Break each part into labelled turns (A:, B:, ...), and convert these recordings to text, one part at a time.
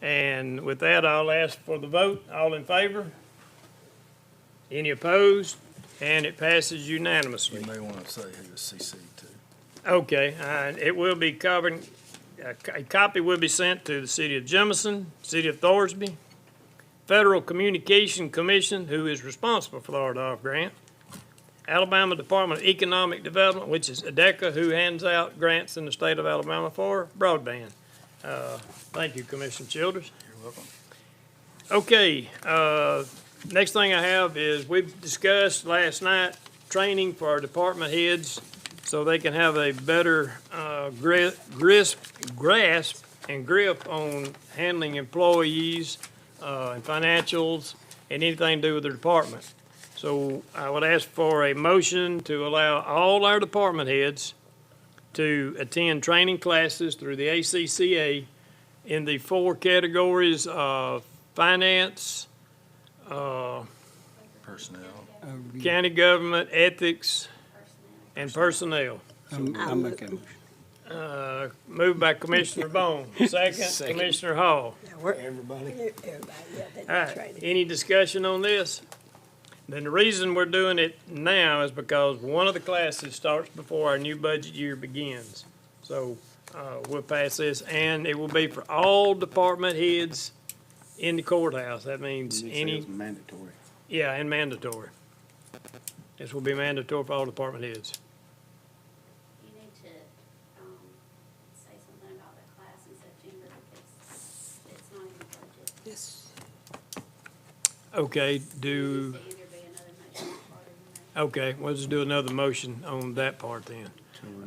A: And with that, I'll ask for the vote. All in favor? Any opposed? And it passes unanimously.
B: You may want to say who is CC to.
A: Okay, and it will be covered, a co- a copy will be sent to the city of Jemison, city of Thorsby, Federal Communication Commission, who is responsible for the RDOF grant, Alabama Department of Economic Development, which is ADECA, who hands out grants in the state of Alabama for broadband. Uh, Thank you, Commissioner Childers.
B: You're welcome.
A: Okay, uh, next thing I have is we've discussed last night training for our department heads so they can have a better uh, gri- grisp, grasp and grip on handling employees uh, and financials and anything to do with their department. So I would ask for a motion to allow all our department heads to attend training classes through the ACCA in the four categories of finance, uh,
B: Personnel.
A: county government, ethics, and personnel.
C: I'll make a motion.
A: Uh, Moved by Commissioner Bone, second Commissioner Hall.
C: Everybody.
D: Everybody, yeah, they
A: All
D: did
A: right,
D: training.
A: any discussion on this? Then the reason we're doing it now is because one of the classes starts before our new budget year begins. So, uh, we'll pass this, and it will be for all department heads in the courthouse. That means any
C: It's mandatory.
A: Yeah, and mandatory. This will be mandatory for all department heads.
E: You need to, um, say something about the class in September because it's not in the budget.
D: Yes.
A: Okay,
E: It
A: do,
E: needs to either be another motion or part of the motion.
A: okay, we'll just do another motion on that part then.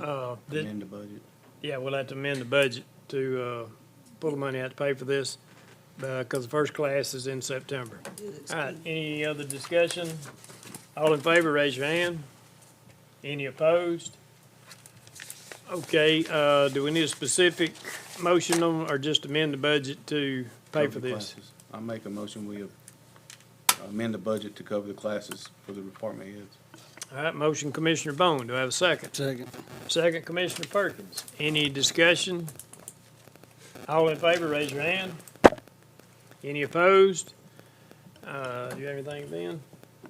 A: Uh, did-
C: Amend the budget.
A: yeah, we'll have to amend the budget to, uh, pull the money out to pay for this, because the first class is in September. All right, any other discussion? All in favor, raise your hand. Any opposed? Okay, uh, do we need a specific motion on, or just amend the budget to pay for
C: Cover the
A: this?
C: classes. I make a motion, we amend the budget to cover the classes for the department heads.
A: All right, motion Commissioner Bone, do I have a second?
C: Second.
A: Second Commissioner Perkins. Any discussion? All in favor, raise your hand. Any opposed? Uh, do you have anything, Ben?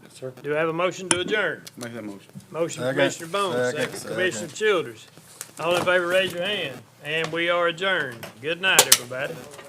C: Yes, sir.
A: Do I have a motion to adjourn?
C: Make that motion.
A: Motion
B: Second.
A: Commissioner Bone,
B: Second.
A: second
B: Second.
A: Commissioner Childers. All in favor, raise your hand, and we are adjourned. Good night, everybody.